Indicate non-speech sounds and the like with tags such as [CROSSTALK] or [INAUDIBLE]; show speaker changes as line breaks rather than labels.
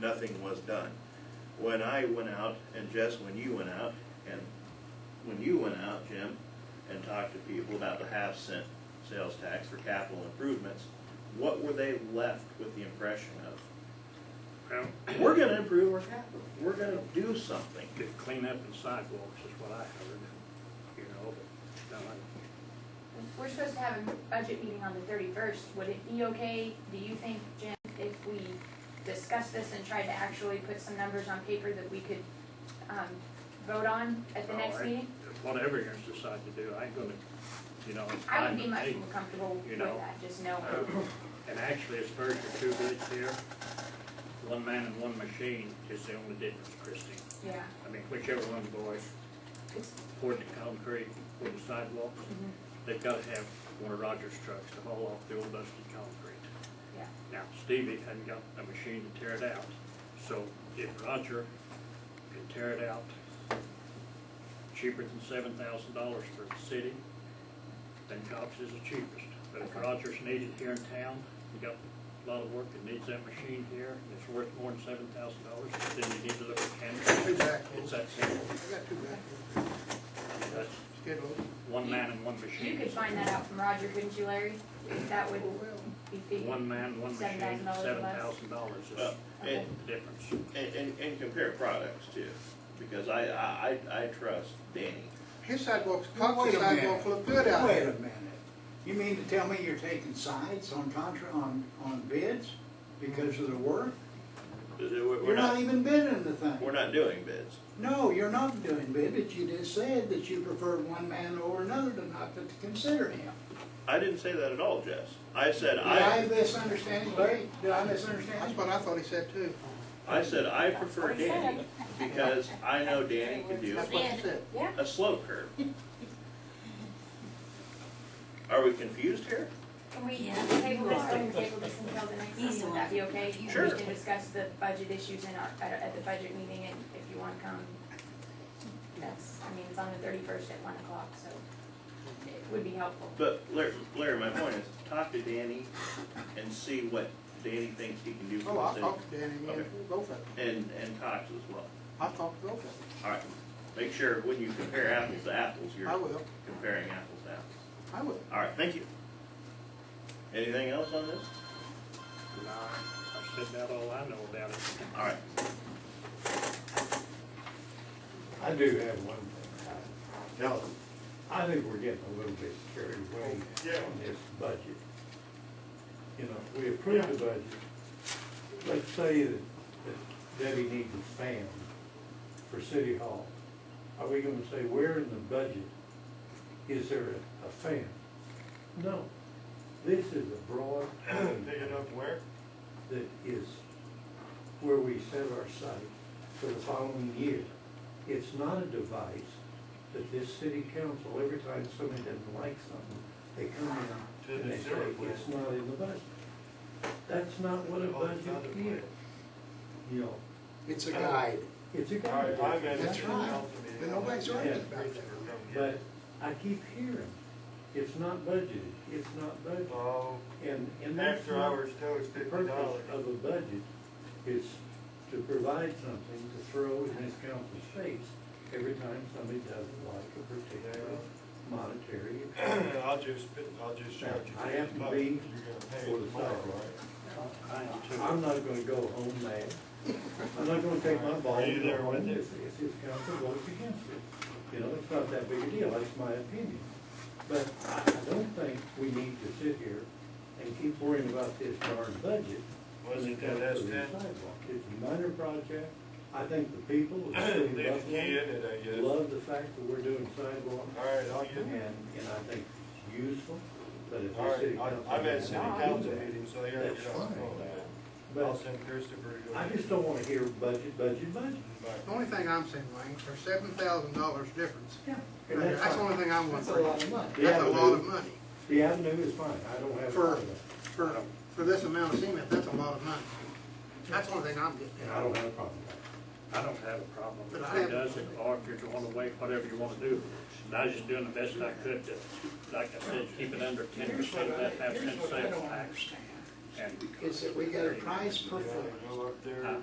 nothing was done. When I went out, and Jess, when you went out, and when you went out, Jim, and talked to people about the half cent sales tax for capital improvements, what were they left with the impression of?
Well,
We're gonna improve our capital, we're gonna do something.
the cleanup and sidewalks is what I heard, you know, but, no, I-
We're supposed to have a budget meeting on the thirty-first, would it be okay, do you think, Jim, if we discuss this and try to actually put some numbers on paper that we could, um, vote on at the
no,
next
I-
meeting?
Whatever you decide to do, I ain't gonna, you know, it's
I
fine
would be
with
much
me.
more comfortable
you
with
know. Uh,
that, just knowing.
And actually, it's very two goods here, one man and one machine is the only difference, Christine.
yeah,
I mean, whichever one boys
it's,
poured the concrete, poured the sidewalks,
mhm,
they've gotta have one of Roger's trucks to haul off the old dusty concrete.
yeah,
Now, Stevie hadn't got a machine to tear it out, so if Roger can tear it out cheaper than seven thousand dollars for the city, then Cox is the cheapest. But if
Okay.
Roger's needed here in town, we got a lot of work that needs that machine here, and it's worth more than seven thousand dollars, then you need to look at Canada.
Exactly.
It's that simple,
I got two back
that's
here. Schedule.
one man and one
you
machine.
could find that out from Roger, couldn't you, Larry? That would be fitting.
One man, one machine,
$7,000
seven thousand dollars
Well,
is
and,
the difference.
and, and- and compare products too, because I, I, I I trust Danny.
His sidewalks,
Wait
Cox's
a minute.
sidewalks look good out
Wait a
there.
minute. You mean to tell me you're taking sides on contra, on, on bids because of the work?
We're we're
You're not
not,
even bidding the
we're
thing.
not doing bids.
No, you're not doing bid, but you just said that you preferred one man over another to not to consider him.
I didn't say that at all, Jess. I said
Did I
I,
misunderstand, Larry? Did I
That's
misunderstand?
what I thought he said too.
I said I prefer Danny because I know Danny can do
That's what he said.
Yeah,
a slope curve. Are we confused here?
Can we
Yeah.
table this, can we table this until the next
He's
meeting,
the
would that be okay?
Sure.
We can discuss the budget issues in our, at, at the budget meeting, and if you wanna come, that's, I mean, it's on the thirty-first at one o'clock, so it would be helpful.
But Larry, Larry, my point is, talk to Danny and see what Danny thinks he can do
Oh,
for
I
the
talked to Danny, man,
Okay.
both of them.
city, and, and Cox as well.
I talked to both of
All right, make sure when you compare apples to apples,
them.
you're
I will,
comparing apples to apples.
I will.
All right, thank you. Anything else on this?
No, I've said about all I know about it.
All right,
I do have one thing. I- Now, I think we're getting a little bit carried away on this budget. You know, we approved the budget. Let's say that that Debbie needs a fan for City Hall. Are we gonna say where in the budget is there a- a fan? No. This is a broad. Pick it up where? That is where we set our sight for the following year. It's not a device that this city council, every time somebody doesn't like something, they come in and they say, it's not in the budget. That's not what a budget is. You know,
It's
it's a guide.
That's right. But nobody's arguing about that.
But I keep hearing, it's not budgeted, it's not budgeted.
Oh,
And, and that's
after
not-
hours tow is
The
fifty
purpose
dollars.
of a budget is to provide something to throw in this council's face every time somebody doesn't like a particular monetary.
I'll just, I'll just charge you.
I have to
$50.
be
You're gonna pay
for
it
the
tomorrow,
salary.
right?
I am too.
I'm not gonna go home mad. I'm not gonna take my ball
Are you
and go
there with
home
it?
if, if this council votes against it. You know, it's not that big a deal, that's my opinion. But I, I don't think we need to sit here and keep worrying about this darn budget.
Was
when
it that
comes to
S
the
ten?
sidewalk. It's a minor project. I think the people
[CLEARS THROAT]
of the
Leave
city
the
of
key in
Buffalo
it, I guess. All
love the fact that we're doing sidewalks.
right, I'll get
And,
it.
and I think it's useful, but if
All
the city
right,
council.
I- I'm at city
doesn't
council
do that,
meeting, so here,
That's
you know,
fine.
I'll- I'll
But
send Christopher to go.
I just don't wanna hear budget, budget, budget.
Bye.
The only thing I'm saying, Wayne, there's seven thousand dollars difference.
Yeah. And that's
That's the
fine.
only thing I'm
That's a
wondering.
lot of money.
That's a
Yeah,
lot
but-
of money.
The avenue is fine, I don't have a
For-
problem with
For, for this amount of cement, that's a lot of money. That's the only thing I'm getting
it,
at.
and I don't have a problem with
I don't have a problem
But
if
I
he
have-
does it, or if you're going away, whatever you want to do. And I was just doing the best I could to, like I said, keep it under ten
Here's what
percent of that
I,
half
here's
cent
what I
sales
don't
tax.
understand,
And
is that we got a price per
You
foot.
wanna Go up there.
Uh,
Huh?